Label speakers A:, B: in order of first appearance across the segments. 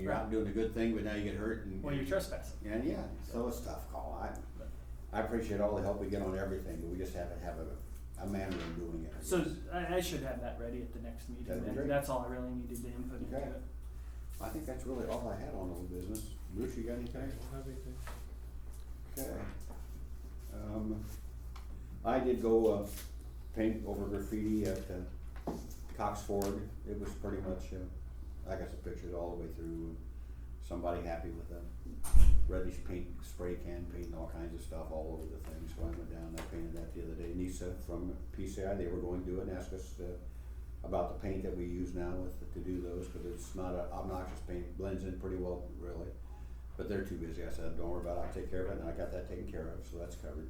A: you're out doing a good thing, but now you get hurt and.
B: Well, you're trespassing.
A: And yeah, so it's a tough call. I, I appreciate all the help we get on everything, but we just have to have a, a manner of doing it. I
B: So
A: guess.
B: I, I should have that ready at the next meeting.
A: That'd be
B: then.
A: great.
B: That's all I really needed to input into
A: Okay.
B: it.
A: I think that's really all I had on old business. Bruce, you got anything? Okay. Um, I did go, uh, paint over graffiti at, uh, Cox Ford. It was pretty much, uh, I got some pictures all the way through. Somebody happy with a reddish paint, spray can paint and all kinds of stuff all over the thing. So I went down and I painted that the other day. Nisa from PCI, they were going to do it and asked us, uh, about the paint that we use now with, to do those, cause it's not a obnoxious paint, blends in pretty well, really. But they're too busy. I said, don't worry about it. I'll take care of it. And I got that taken care of, so that's covered.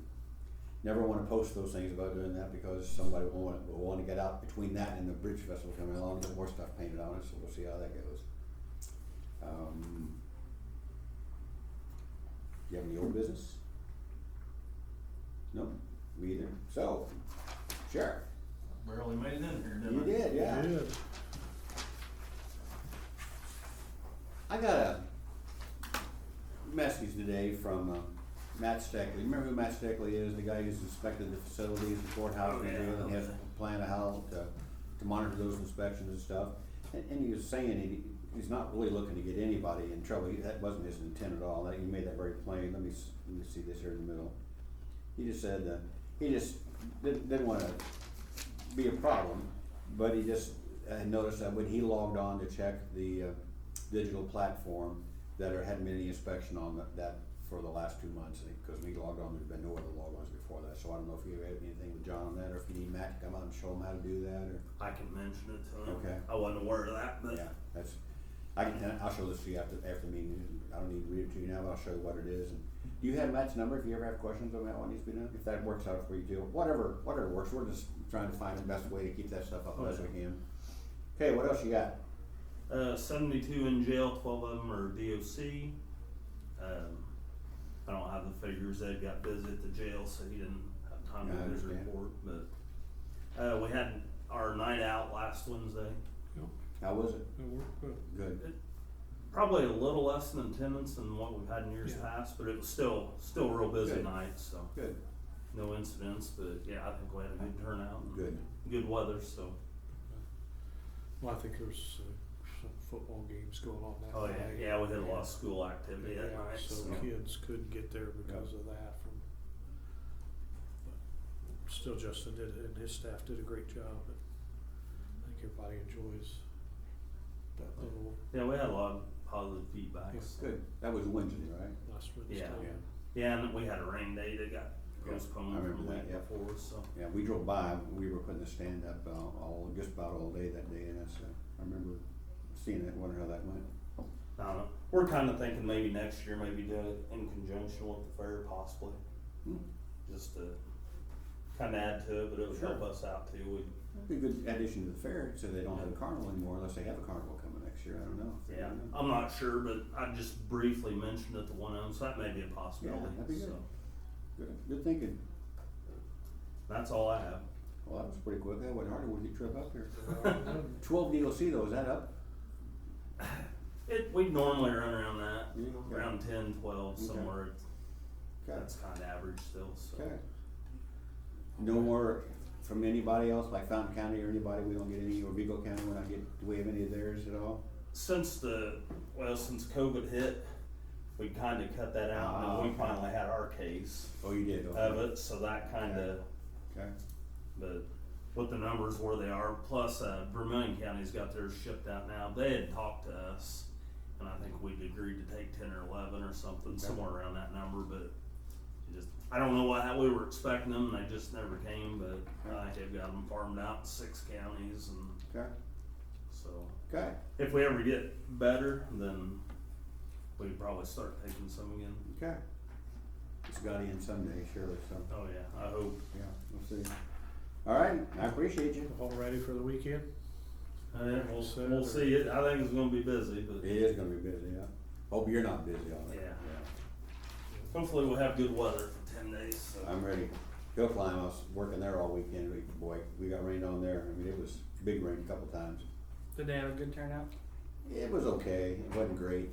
A: Never want to post those things about doing that because somebody will want, will want to get out between that and the bridge festival coming along and get more stuff painted on it, so we'll see how that goes. Um, do you have any old business? No, me either. So, Sheriff,
C: Barely made it in here, didn't
A: you
C: I?
A: did, yeah. I got a message today from uh, Matt Steckley. Remember who Matt Steckley is? The guy who's inspected the facilities, the courthouse,
C: Oh,
A: and
C: yeah,
A: everything, and has
C: okay.
A: a plan of how to, to monitor those inspections and stuff. And, and he was saying he, he's not really looking to get anybody in trouble. He- That wasn't his intent at all. That- He made that very plain. Let me, s- let me see this here in the middle. He just said, uh, he just didn't, didn't wanna be a problem, but he just had noticed that when he logged on to check the, uh, digital platform, that there hadn't been any inspection on that- that for the last two months, and, cause when he logged on, there'd been no other logons before that, so I don't know if you have anything with John on that, or if you need Matt to come out and show him how to do that, or.
C: I can mention it to him.
A: Okay.
C: I wasn't aware of that, but
A: Yeah, that's, I can, I'll show this to you after, after the meeting, I don't need to read it to you now, but I'll show you what it is, and do you have Matt's number if you ever have questions on that one, needs to be done, if that works out for you too, whatever, whatever works, we're just trying to find the best way to keep that stuff up as we can. Okay, what else you got?
C: uh, seventy-two in jail, twelve of them are DOC. Um, I don't have the figures. Ed got busy at the jail, so he didn't have time
A: Yeah, I
C: to do his
A: understand.
C: report. But uh, we had our night out last Wednesday.
A: How was it?
D: It worked good.
A: Good.
C: Probably a little less in attendance than what we've had in years
D: Yeah.
C: past, but it was still still a real busy
A: Good.
C: night. So
A: Good.
C: no incidents, but yeah, I think we had a good turnout. and
A: Good.
C: Good weather, so
D: Well, I think there's uh, some football games going on that
C: oh
D: night.
C: yeah, yeah, we had a lot of school activity that
D: Yeah,
C: night.
D: so
C: so.
D: kids couldn't get there because of that from. but Still Justin did, and his staff did a great job, but I think everybody enjoys that little
C: Yeah, we had a lot of positive feedback.
D: Yeah.
C: so-
A: Good. That was Wednesday, right?
D: last Wednesday.
C: Yeah. Yeah, and we had a rain day that got
A: Yeah,
C: postponed
A: I
C: from
A: remember
C: the
A: that,
C: week
A: yeah.
C: before, so.
A: Yeah, we drove by, we were putting the stand up uh, all, just about all day that day, and that's, uh, I remember seeing that, wondering how that went.
C: I don't know. We're kind of thinking maybe next year, maybe do it in conjunction with the fair possibly,
A: Hmm.
C: just to kind of add to it, but it would help
A: Sure.
C: us out too. We,
A: Be a good addition to the fair, so they don't have a carnival anymore unless they have a carnival coming next year, I don't know.
C: yeah,
A: I don't know.
C: I'm not sure, but I just briefly mentioned it to one of them, so that may be a
A: that'd be
C: possibility,
A: good.
C: so.
A: Good, good thinking.
C: That's all I have.
A: Well, that was pretty quick, that went harder when you trip up here.
D: Yeah.
A: Twelve DOC though, is that up?
C: It, we normally run around that,
A: Yeah, okay.
C: around ten, twelve,
A: Okay.
C: somewhere.
A: Okay,
C: That's kind of average still, so.
A: okay. No more from anybody else, like Fountain County or anybody, we don't get any, or Vigo County, we're not getting, do we have any of theirs at all?
C: since the well since COVID hit, we kind of cut that out, and then
A: Ah.
C: we finally had our case
A: Oh, you did, okay.
C: of it. So that kind of,
A: Okay,
C: but with the numbers where they are, plus uh, Vermillion County's got theirs shipped out now. They had talked to us, and I think we'd agreed to take ten or eleven or something,
A: Okay.
C: somewhere around that number. But it just I don't know what how we were expecting them. and They just never came, but I think they've got them farmed out in six counties, and
A: okay,
C: so
A: okay.
C: if we ever get better, then we could probably start taking some again.
A: Okay. It's got in someday, surely, so,
C: Oh yeah, I hope.
A: yeah, we'll see. All right, I appreciate you.
D: All ready for the weekend?
C: And then we'll,
D: So-
C: we'll see it. I think it's gonna be busy,
A: It
C: but
A: is gonna be busy, yeah. Hope you're not busy on
C: yeah.
A: it.
C: Hopefully we'll have good weather for ten days. So.
A: I'm ready. Hill climb, I was working there all weekend, we, boy, we got rained on there, I mean, it was big rain a couple times.
B: Did they have a good turnout?
A: It was okay, it wasn't great.